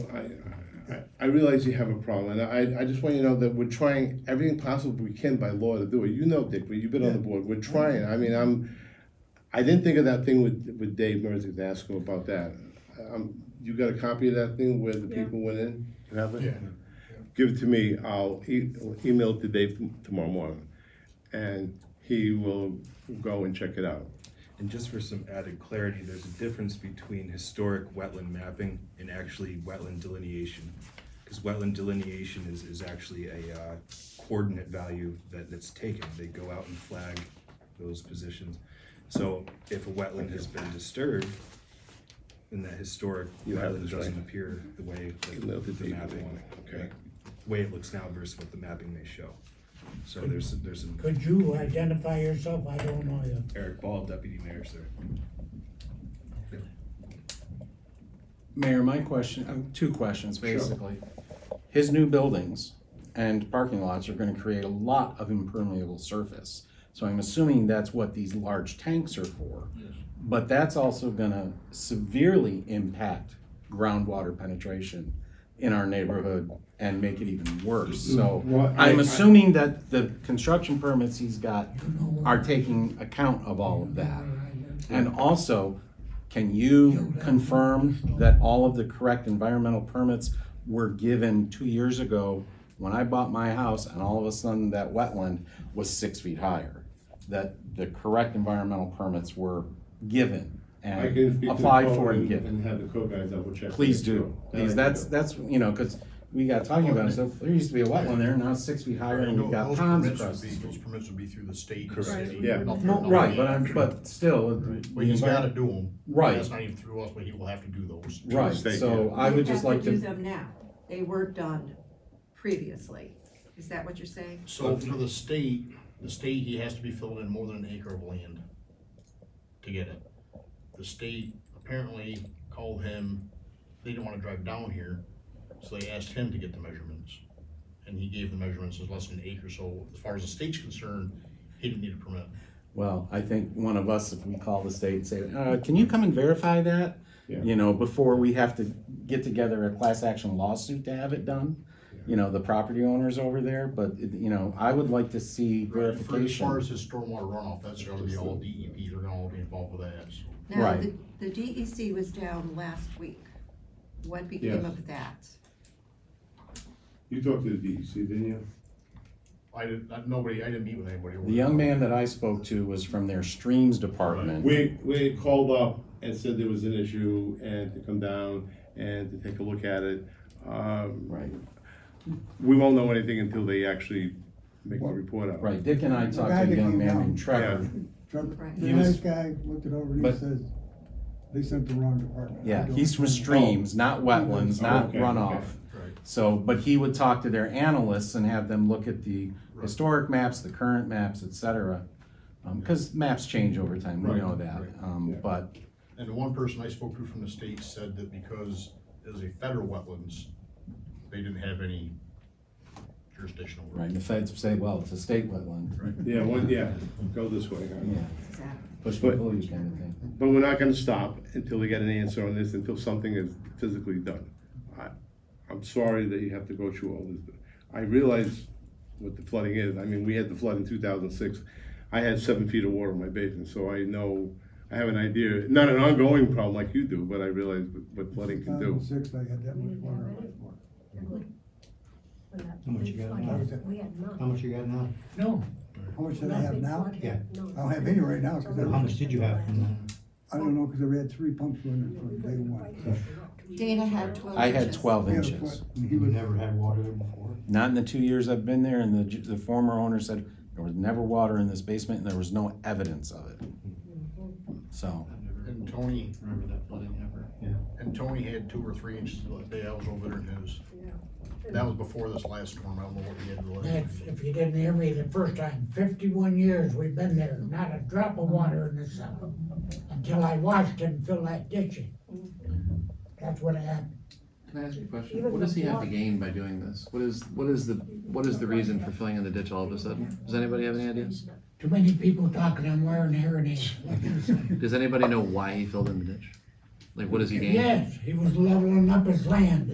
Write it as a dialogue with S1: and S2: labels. S1: I, I- I realize you have a problem, and I, I just want you to know that we're trying everything possible we can by law to do it. You know, Dick, but you've been on the board, we're trying, I mean, I'm, I didn't think of that thing with, with Dave Merzick to ask him about that. Um, you got a copy of that thing where the
S2: Yeah.
S1: people went in? You have it? Give it to me, I'll e- email it to Dave tomorrow morning, and he will go and check it out.
S3: And just for some added clarity, there's a difference between historic wetland mapping and actually wetland delineation. Because wetland delineation is, is actually a uh, coordinate value that, that's taken. They go out and flag those positions. So if a wetland has been disturbed, then that historic
S1: You have
S3: wetland
S1: this,
S3: doesn't
S1: right?
S3: appear the way that
S1: Email to
S3: the
S1: Dave,
S3: mapping,
S1: okay?
S3: the way it looks now versus what the mapping may show. So there's, there's some
S4: Could you identify yourself? I don't know you.
S3: Eric Ball, deputy mayor, sir.
S5: Mayor, my question, uh, two questions, basically. His new buildings and parking lots are gonna create a lot of impermeable surface. So I'm assuming that's what these large tanks are for. But that's also gonna severely impact groundwater penetration in our neighborhood and make it even worse. So
S1: Mm-hmm. Well, I-
S5: I'm assuming that the construction permits he's got are taking account of all of that. And also, can you confirm that all of the correct environmental permits were given two years ago when I bought my house and all of a sudden that wetland was six feet higher? That the correct environmental permits were given
S1: I can speak
S5: and
S1: to the
S5: applied
S1: code
S5: for and given?
S1: And have the code guys double check.
S5: Please do, please, that's, that's, you know, cause we got talking about it, so there used to be a wetland there, now it's six feet higher and we've got
S6: Those
S5: ponds
S6: permits would
S5: across the
S6: be-
S5: street.
S6: Those permits would be through the state. and
S3: Correct.
S6: city.
S1: Yeah.
S2: No,
S5: No, right, but I'm, but still. uh,
S6: But he's gotta do them.
S5: Right.
S6: That's not even through us, but he will have to do those.
S5: Right,
S1: Mistake,
S5: so I
S2: They
S5: would
S2: have
S5: just like
S2: Do
S5: to,
S2: them now. They were done previously. Is that what you're saying?
S6: So for the state, the state, he has to be filling in more than an acre of land to get it. The state apparently called him, they didn't wanna drive down here, so they asked him to get the measurements. And he gave the measurements as less than an acre, so as far as the state's concerned, he didn't need a permit.
S5: well, I think one of us, if we call the state and say, uh, can you come and verify that? You know, before we have to get together a class action lawsuit to have it done, you know, the property owners over there, but, it- you know, I would like to see
S6: For as far
S5: verification.
S6: as his stormwater runoff, that's gonna be all DEP, they're gonna all be involved with that, so.
S2: Now,
S5: Right.
S2: the, the DEC was down last week. What became
S1: Yes.
S2: of that?
S1: You talked to the DEC, didn't you?
S6: I didn't, I- nobody, I didn't meet with anybody. over
S5: The
S6: there.
S5: young man that I spoke to was from their streams department.
S1: We, we called up and said there was an issue and to come down and to take a look at it. Um,
S5: Right,
S1: we won't know anything until they actually make a report out.
S5: right, Dick and I talked to a
S7: that
S5: young
S7: came
S5: man
S7: down.
S5: named Trevor.
S7: Trump,
S2: Right.
S7: the
S5: He was-
S7: nice guy looked it over and he
S5: but-
S7: says, they sent the wrong department. I
S5: Yeah,
S7: don't
S5: he's from
S7: know."
S5: streams, not wetlands,
S1: Oh,
S5: not
S1: okay,
S5: runoff.
S6: Right.
S5: So, but he would talk to their analysts and have them look at the historic maps, the current maps, et cetera. Um 'cause cause maps change over time, we
S6: Right,
S5: know that,
S6: right,
S5: um,
S1: yeah.
S5: but,
S6: And the one person I spoke to from the state said that because it was a federal wetlands, they didn't have any jurisdiction over it.
S5: right, the feds say, well, it's a state wetland.
S1: Yeah, one, yeah, go this way.
S5: Yeah,
S2: Exactly.
S5: push
S1: But-
S5: and pull you kind of thing.
S1: But we're not gonna stop until we get an answer on this, until something is physically done. I, I'm sorry that you have to go through all this, but I realize what the flooding is. I mean, we had the flood in two thousand six. I had seven feet of water in my basement, so I know, I have an idea, not an ongoing problem like you do, but I realize what- what flooding can do.
S7: 2006, I had that much water on my floor.
S8: How much you got now?
S7: We
S8: How much you got now?
S7: No. How much did I have now?
S8: Yeah.
S7: I don't have any right now, cause I,
S8: How much did you have? from that?
S7: I don't know, cause I had three pumps running from day one.
S2: Dana had twelve
S5: I had
S2: inches.
S5: twelve
S7: He had a
S5: inches,
S7: foot, and he
S8: You
S7: was-
S8: never had water there before?
S5: not in the two years I've been there, and the, ju- the former owner said, there was never water in this basement, and there was no evidence of it. So,
S6: And Tony,
S8: Remember that flooding ever?
S6: and Tony had two or three inches the day I was over there in his. That was before this last storm, I don't know what he had. the
S9: That's,
S6: last-
S9: if you didn't hear me the first time, fifty-one years we've been there, not a drop of water in the summer, until I watched him fill that ditch in. That's what happened.
S10: Can I ask you a question? What does he have to gain by doing this? What is, what is the, what is the reason for filling in the ditch all of a sudden? Does anybody have any ideas?
S9: Too many people talking, I'm wearing hair and
S10: Does anybody know why he filled in the ditch? Like, what does he gain?
S9: Yes, he was leveling up his land,